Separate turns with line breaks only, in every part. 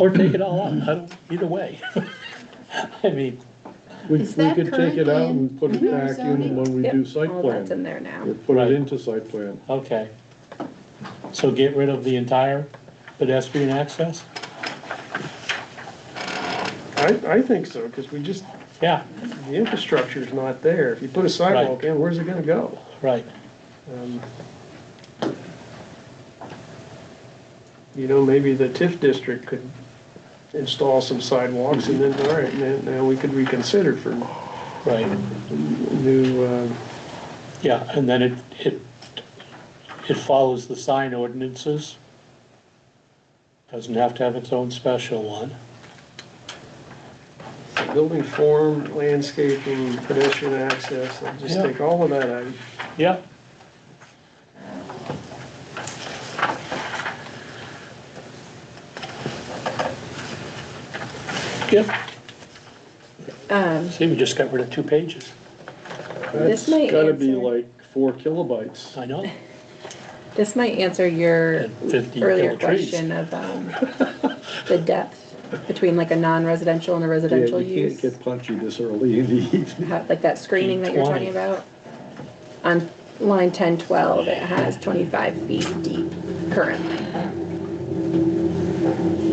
Or take it all out, I don't, either way. I mean,
We,
Is
we
that
could take it
currently
out and put it
in our
back in
zoning?
when we
Yep,
do site
All that's in
plan.
there now.
Or put
Right.
it into site plan.
okay. So get rid of the entire pedestrian access?
I, I think so, because we just,
Yeah,
the infrastructure's not there. If you put a sidewalk in, where's it gonna go?
right,
Um, You know, maybe the TIF district could install some sidewalks and then, all right, now, now we could reconsider for
right.
new, uh,
Yeah, and then it, it, it follows the sign ordinances. Doesn't have to have its own special one.
building form, landscaping, pedestrian access, I'll just
Yeah.
take all of that out.
Yeah. Yep,
Um,
see, we just got rid of two pages.
This
That's
might
gotta be
answer-
like four kilobytes.
I know,
this might answer your
And 50
earlier
yellow trees.
question of, um, the depth between like a non-residential and a
Yeah,
residential
you can't
use.
get punchy this early in the evening.
How- Like that screening that you're
20.
talking about. On line ten twelve, it has twenty-five feet deep currently.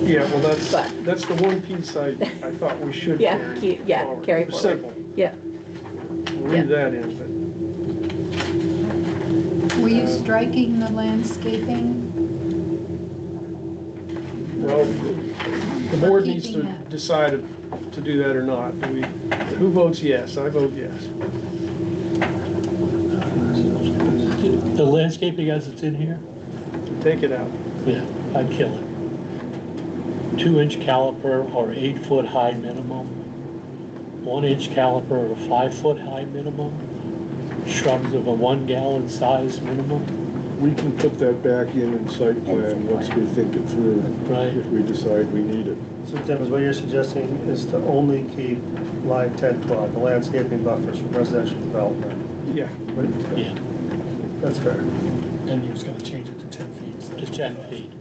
Yeah, well, that's,
But-
that's the one piece I, I thought we should
Yeah,
carry
keep- yeah,
forward.
carry forward.
Simple,
Yeah,
leave that in, but.
Were you striking the landscaping?
Well, the board needs to
Keeping that.
decide if- to do that or not. Do we- Who votes yes? I vote yes.
the landscaping as it's in here,
Take it out.
yeah, I'd kill it. Two inch caliper or eight foot high minimum, one inch caliper or five foot high minimum, shrubs of a one gallon size minimum,
We can put that back in in site plan once we think it through,
right?
if we decide we need it.
So Tim, is what you're suggesting is to only keep line ten twelve, the landscaping buffers from residential development?
Yeah.
Yeah,
That's fair.
And he was gonna change it to ten feet. so-
to ten feet,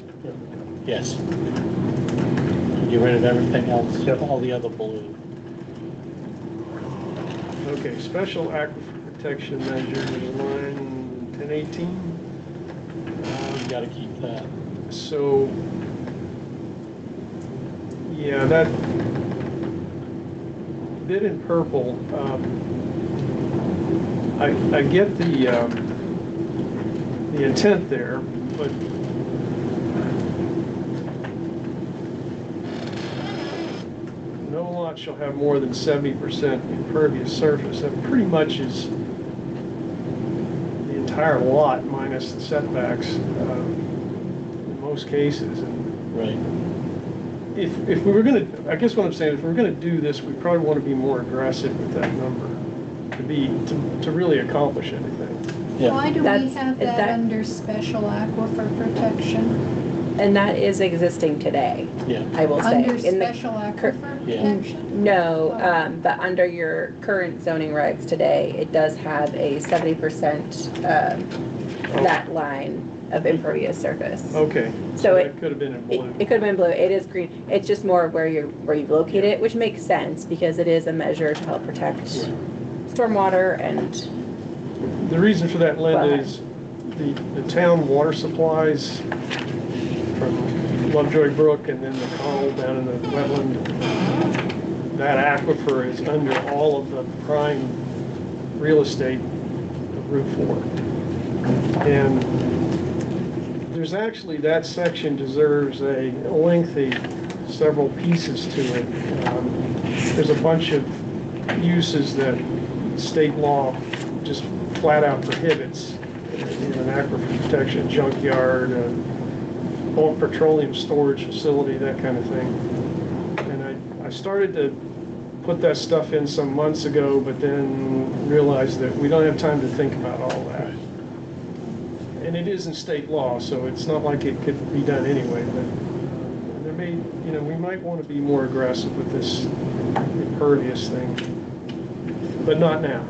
yes. And Get rid of everything else,
Yep.
all the other balloon.
Okay, special aquifer protection measure, line 1018.
You gotta keep that.
So, yeah, that bit in purple, um, I, I get the, um, the intent there, but no lot shall have more than seventy percent impervious surface. That pretty much is the entire lot minus the setbacks, um, in most cases. And
Right.
if, if we were gonna, I guess what I'm saying, if we're gonna do this, we probably wanna be more aggressive with that number to be, to, to really accomplish anything.
Yeah,
Why do we
That's-
have
that-
that under special aquifer protection?
and that is existing today,
yeah,
I will say.
Under
in the
special
cur-
aquifer
Yeah.
protection?
No, um, but under your current zoning regs today, it does have a seventy percent, uh, that line of impervious surface.
Okay.
So it-
that Could have been in
It,
blue.
it could have been blue, it is green, it's just more where you're, where you locate it, which makes sense, because it is a measure to help protect stormwater and,
The reason for that, Linda,
Right.
is the, the town water supplies from Lovejoy Brook and then the call down in the wetland. That aquifer is under all of the prime real estate of Route 4. And there's actually, that section deserves a lengthy, several pieces to it. Um, There's a bunch of uses that state law just flat out prohibits in an aquifer protection junkyard, a bulk petroleum storage facility, that kind of thing. And I, I started to put that stuff in some months ago, but then realized that we don't have time to think about all that. And it isn't state law, so it's not like it could be done anyway, but there may, you know, we might want to be more aggressive with this impervious thing, but not now.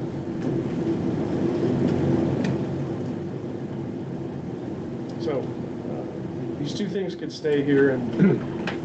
So, uh, these two things could stay here and